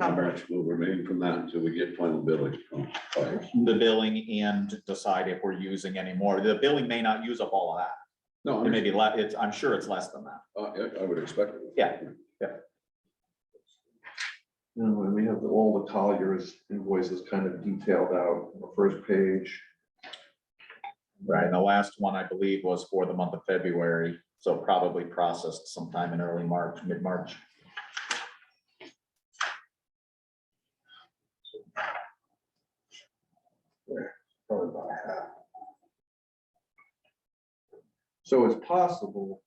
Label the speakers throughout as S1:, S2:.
S1: encumbered.
S2: We'll remain from that until we get final billing from fire.
S3: the billing and decide if we're using any more. The billing may not use up all of that.
S2: No,
S3: It
S2: I
S3: may be less, it's, I'm sure it's less than that.
S2: Uh, I would expect. it.
S3: Yeah.
S4: You know, and we have the- all the Collier's invoices kind of detailed out on the first page.
S3: Right. And the last one, I believe, was for the month of February, so probably processed sometime in early March, mid-March.
S4: probably about half. So it's possible,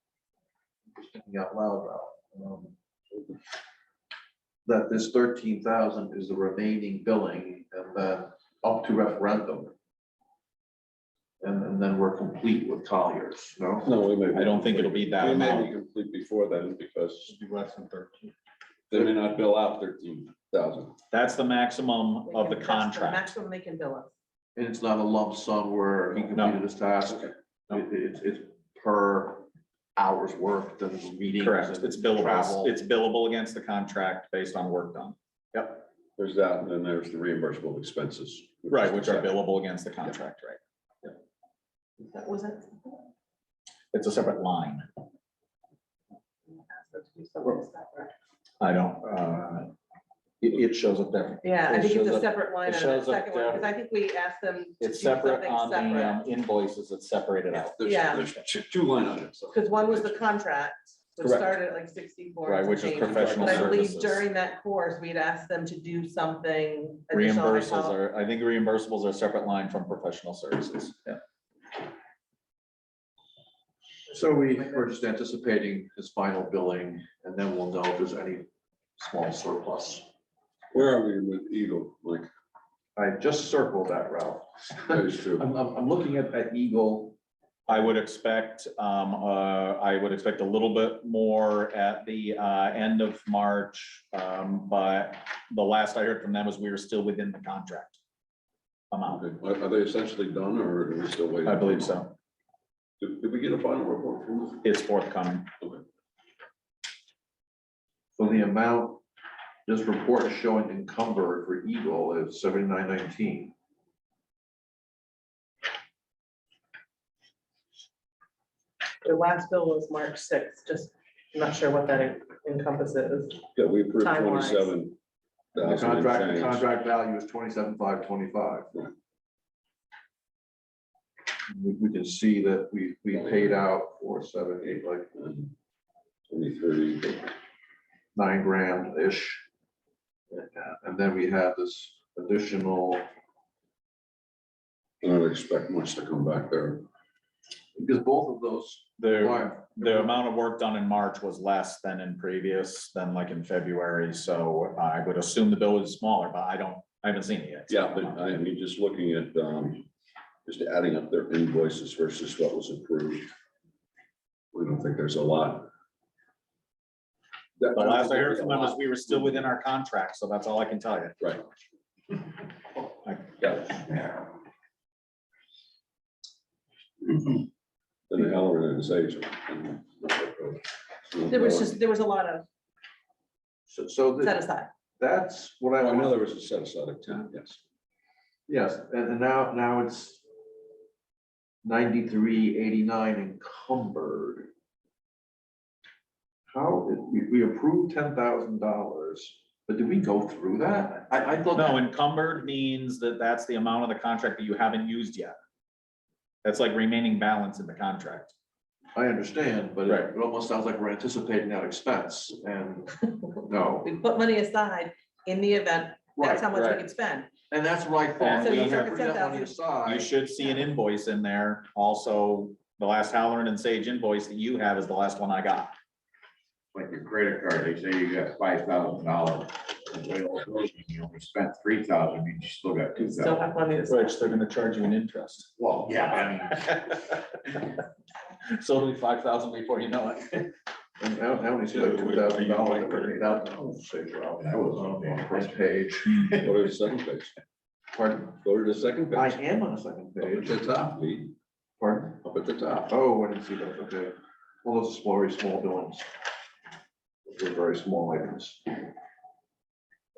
S4: just thinking out loud now, um, that this thirteen thousand is the remaining billing and then up to referendum. And, and then we're complete with Colliers, no?
S2: No, we may. be
S3: I don't think it'll be that
S2: We may be
S3: amount.
S2: complete before then because
S4: Should be less than thirteen.
S2: they may not bill out thirteen thousand.
S3: That's the maximum
S1: They
S3: of the
S1: can- that's
S3: contract.
S1: Maximum they can bill us.
S4: And it's not a lump sum where he
S3: No.
S4: completed his task,
S2: Okay.
S4: it, it's, it's per hour's worked and meetings.
S3: Correct.
S4: and
S3: It's billable.
S4: travel.
S3: It's billable against the contract based on work done.
S2: There's that, and then there's the reimbursable expenses.
S3: Right, which are billable against the contract, right?
S1: That was it.
S3: It's a separate line.
S1: Yeah,
S3: I don't, uh, it, it shows up there.
S1: I
S3: It
S1: think it's
S3: shows
S1: a
S3: up-
S1: separate line
S3: it
S1: on that
S3: shows up
S1: second one, because
S3: there.
S1: I think we asked them. to
S3: It's
S1: do
S3: separate
S1: something
S3: on the
S1: separate.
S3: um, invoices, it's separated out,
S2: There's,
S1: Yeah.
S2: there's two- two line items.
S1: Because one was the contract, which
S3: Correct.
S1: started at like sixty-four.
S3: right,
S1: and
S3: which is
S1: change.
S3: professional
S1: But I believe
S3: services.
S1: during that course, we'd asked them to do something. additional, I
S3: Reimbursables
S1: call-
S3: are, I think reimbursables are a separate line from professional services. Yeah.
S4: So we, we're just anticipating his final billing, and then we'll know if there's any small surplus.
S2: Where are we with Eagle, Mike?
S4: I just circled that route.
S2: That is true.
S4: I'm, I'm, I'm looking at that Eagle.
S3: I would expect, um, uh, I would expect a little bit more at the, uh, end of March. Um, but the last I heard from them was we were still within the contract amount.
S2: Okay. Are are they essentially done or are we still waiting?
S3: I believe so.
S2: Did did we get a final report from them?
S3: It's forthcoming.
S4: So the amount, this report is showing encumbered for Eagle is seventy-nine nineteen.
S1: The last bill was March sixth, just not sure what that encompasses.
S2: Yeah, we approved
S1: Time-wise.
S2: twenty-seven.
S4: The contract, the contract value is twenty-seven five twenty-five.
S2: Right.
S4: We, we can see that we, we paid out four, seven, eight, like
S2: Twenty-three,
S4: nine grand-ish. And then we have this additional,
S2: I don't expect much to come back there.
S4: because both of those
S3: There,
S4: are
S3: the amount of work done in March was less than in previous, than like in February, so I would assume the bill is smaller, but I don't, I haven't seen it yet.
S2: Yeah, but I mean, just looking at, um, just adding up their invoices versus what was approved. We don't think there's a lot. That-
S3: The last I
S2: don't
S3: heard
S2: think
S3: from them
S2: there's
S3: was we were still within our contract, so that's all I can tell you.
S2: a lot. Right.
S3: Yeah.
S2: Then the Halloran and his agent.
S1: There was just, there was a lot of
S4: So, so
S1: set
S4: that,
S1: aside.
S4: that's what I
S2: I know
S4: want,
S2: there was a set aside of ten, yes.
S4: yes, and and now, now it's ninety-three, eighty-nine encumbered. How, we, we approved ten thousand dollars, but did we go through that? I, I thought.
S3: No, encumbered means that that's the amount of the contract that you haven't used yet. That's like remaining balance in the contract.
S4: I understand, but
S3: Right.
S4: it- it almost sounds like we're anticipating that expense and no.
S1: We put money aside in the event, that's how
S4: Right,
S1: much we
S3: right.
S1: could spend.
S4: and that's what I thought.
S3: So
S4: we
S3: you
S4: had
S1: took
S4: put that money
S1: $10,000.
S3: You
S4: aside.
S3: should see an invoice in there. Also, the last Halloran and Sage invoice that you have is the last one I got.
S5: like your credit card, they say you got five thousand dollars. You only spent three thousand, you still got two
S1: Still
S5: thousand.
S1: have money to spend.
S3: Which they're gonna charge you an interest.
S5: Well, yeah, I mean.
S3: So it'll be five thousand before you know it.
S4: And I don't, I only see like two thousand dollars that were paid out. Oh, shit, well, That was on the first page.
S2: Go to the second page.
S4: Pardon?
S2: Go to the second
S4: I
S2: page.
S4: am on the second
S2: Up at
S4: page.
S2: the top, Lee,
S4: Pardon?
S2: up at the top.
S4: Oh, I didn't see that, okay. Well, those are very small billings. Those are very small items.